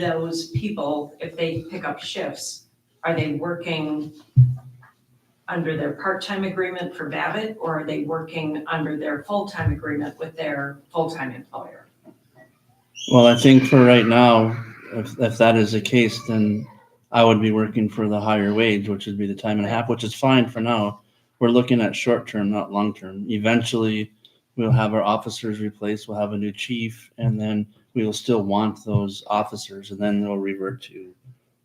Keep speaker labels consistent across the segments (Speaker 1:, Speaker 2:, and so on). Speaker 1: those people, if they pick up shifts, are they working under their part-time agreement for Babbitt, or are they working under their full-time agreement with their full-time employer?
Speaker 2: Well, I think for right now, if, if that is the case, then I would be working for the higher wage, which would be the time and a half, which is fine for now. We're looking at short term, not long term. Eventually, we'll have our officers replaced, we'll have a new chief, and then we will still want those officers, and then they'll revert to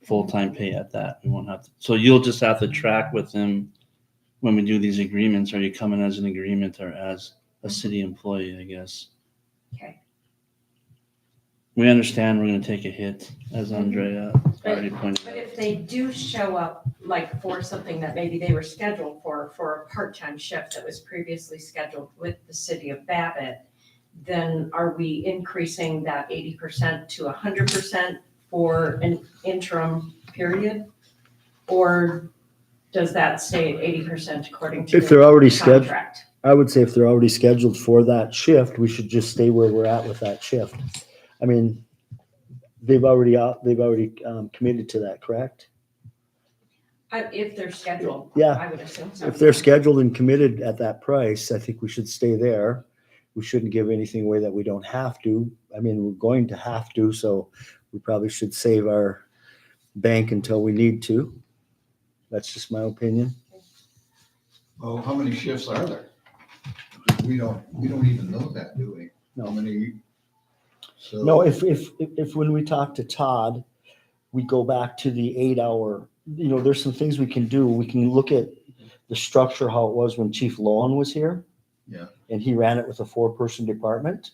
Speaker 2: full time pay at that. We won't have to. So you'll just have to track with them when we do these agreements. Are you coming as an agreement or as a city employee, I guess?
Speaker 1: Mm-hmm. Okay.
Speaker 2: We understand we're gonna take a hit, as Andrea already
Speaker 1: Mm-hmm.
Speaker 2: pointed
Speaker 1: But
Speaker 2: out.
Speaker 1: if they do show up, like for something that maybe they were scheduled for, for a part-time shift that was previously scheduled with the city of Babbitt, then are we increasing that eighty percent to hundred percent for an interim period? Or does that stay at eighty percent according to
Speaker 3: If
Speaker 1: the
Speaker 3: they're already scheduled,
Speaker 1: contract?
Speaker 3: I would say if they're already scheduled for that shift, we should just stay where we're at with that shift. I mean, they've already, out- they've already um, committed to that, correct?
Speaker 1: I- Uh, If they're scheduled,
Speaker 3: Yeah,
Speaker 1: I would assume so.
Speaker 3: if they're scheduled and committed at that price, I think we should stay there. We shouldn't give anything away that we don't have to. I mean, we're going to have to, so we probably should save our bank until we need to. That's just my opinion.
Speaker 4: Well, how many shifts are there? We don't, we don't even know that, do we?
Speaker 3: No.
Speaker 4: How many? So-
Speaker 3: No, if, if, if, if when we talk to Todd, we go back to the eight hour, you know, there's some things we can do. We can look at the structure, how it was when Chief Lohan was here.
Speaker 4: Yeah.
Speaker 3: And he ran it with a four-person department.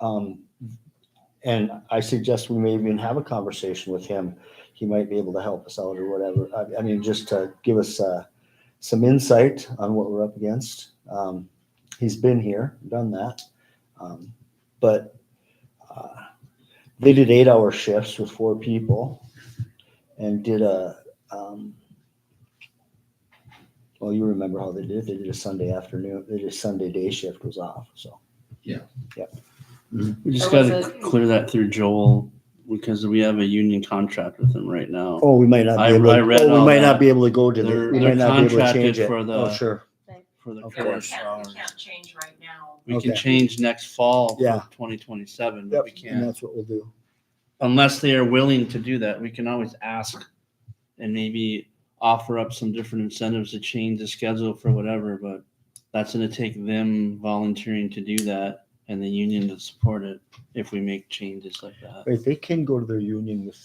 Speaker 3: Um, and I suggest we may even have a conversation with him. He might be able to help us out or whatever. I, I mean, just to give us, uh, some insight on what we're up against. Um, he's been here, done that. Um, but uh, they did eight hour shifts with four people and did a um, well you remember how they did it they did a sunday afternoon they did a sunday day shift was off so
Speaker 2: We just
Speaker 1: Or was
Speaker 2: gotta
Speaker 1: it-
Speaker 2: clear that through Joel, because we have a union contract with him right now.
Speaker 3: oh we might not be
Speaker 2: I-
Speaker 3: able
Speaker 2: I
Speaker 3: to,
Speaker 2: read
Speaker 3: oh, we
Speaker 2: all
Speaker 3: might
Speaker 2: that.
Speaker 3: not be able to go to the
Speaker 2: They're-
Speaker 3: we
Speaker 2: they're
Speaker 3: might not be able to
Speaker 2: contracted
Speaker 3: change it
Speaker 2: for the-
Speaker 3: oh sure
Speaker 2: For the
Speaker 3: Of
Speaker 1: Yeah, we
Speaker 2: course,
Speaker 1: can't, we can't change right now.
Speaker 2: we can
Speaker 3: Okay.
Speaker 2: change next fall
Speaker 3: Yeah.
Speaker 2: for twenty twenty-seven, but we
Speaker 3: and
Speaker 2: can't.
Speaker 3: that's what we'll do
Speaker 2: Unless they are willing to do that, we can always ask and maybe offer up some different incentives to change the schedule for whatever, but that's gonna take them volunteering to do that and the union to support it if we make changes like that.
Speaker 3: right they can go to their union with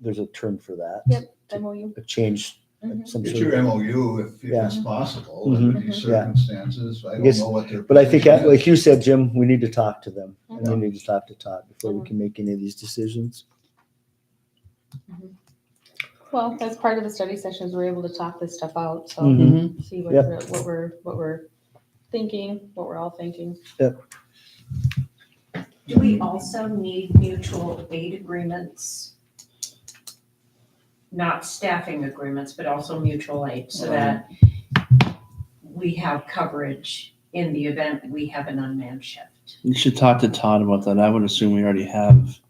Speaker 3: there's a term for that
Speaker 5: Yep. MOU.
Speaker 3: a change uh,
Speaker 5: Mhm.
Speaker 3: some
Speaker 4: Get
Speaker 3: sort
Speaker 4: your
Speaker 3: of,
Speaker 4: MOU if, if it's possible,
Speaker 3: Mhm.
Speaker 4: under these
Speaker 3: Mhm. Yeah.
Speaker 4: circumstances. I don't
Speaker 3: guess-
Speaker 4: know what their.
Speaker 3: but i think
Speaker 4: position
Speaker 3: that, like
Speaker 4: is.
Speaker 3: you said jim we need to talk to them and
Speaker 4: Mhm.
Speaker 3: we need to talk to todd before we can make any of these decisions
Speaker 5: Well, as part of the study sessions, we're able to talk this stuff out, so
Speaker 2: Mm-hmm.
Speaker 3: Mhm.
Speaker 5: see what,
Speaker 3: Yep.
Speaker 5: the- what we're, what we're thinking, what we're all thinking.
Speaker 1: Do we also need mutual aid agreements? Not staffing agreements, but also mutual aid, so that we have coverage in the event we have an unmanned shift.
Speaker 2: You should talk to Todd about that. I would assume we already have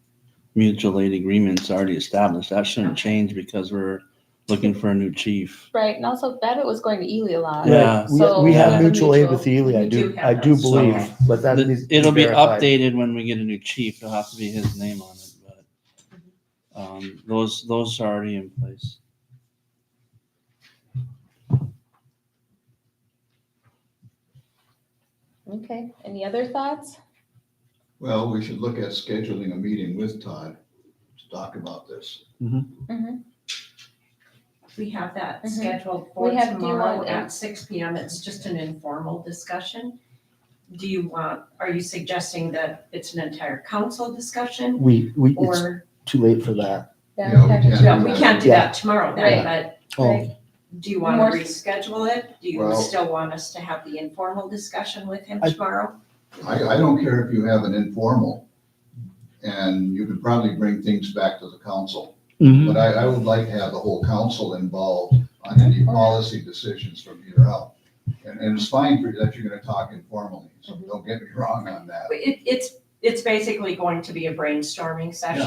Speaker 2: mutual aid agreements already established. That shouldn't change because we're looking for a new chief.
Speaker 5: Right, and also Babbitt was going to Ely a lot.
Speaker 2: Yeah.
Speaker 3: Right,
Speaker 5: So-
Speaker 3: we, we have
Speaker 5: Yeah.
Speaker 3: mutual aid with
Speaker 5: Mutual.
Speaker 3: Ely, I
Speaker 1: We do
Speaker 3: do,
Speaker 1: have
Speaker 3: I do
Speaker 1: that.
Speaker 3: believe,
Speaker 2: So-
Speaker 3: but that needs. to
Speaker 2: It'll be
Speaker 3: verified.
Speaker 2: updated when we get a new chief. It'll have to be his name on it, but um, those, those are already in place.
Speaker 5: Okay, any other thoughts?
Speaker 4: Well, we should look at scheduling a meeting with Todd to talk about this.
Speaker 1: We have that
Speaker 5: Mhm.
Speaker 1: scheduled for
Speaker 5: We have- do you
Speaker 1: tomorrow
Speaker 5: want-
Speaker 1: at six P M. It's just an informal discussion. Do you want, are you suggesting that it's an entire council discussion
Speaker 3: We, we, it's
Speaker 1: or?
Speaker 3: too late for that.
Speaker 5: Yeah,
Speaker 4: Yeah, we
Speaker 5: Dr.
Speaker 4: can't.
Speaker 1: No,
Speaker 5: Jones.
Speaker 1: we can't do
Speaker 3: Yeah.
Speaker 1: that tomorrow then,
Speaker 5: Right.
Speaker 1: but
Speaker 3: Oh,
Speaker 5: Right.
Speaker 1: Do you want
Speaker 5: More-
Speaker 1: to reschedule it? Do you
Speaker 4: Well-
Speaker 1: still want us to have the informal discussion with him
Speaker 3: I-
Speaker 1: tomorrow?
Speaker 4: I, I don't care if you have an informal and you could probably bring things back to the council.
Speaker 2: Oh. Mm-hmm.
Speaker 3: Mm-hmm.
Speaker 4: But I, I would like to have the whole council involved on any policy decisions from here out. And, and it's fine for, that you're gonna talk informally, so don't get me wrong on that.
Speaker 1: But It, it's, it's basically going to be a brainstorming session.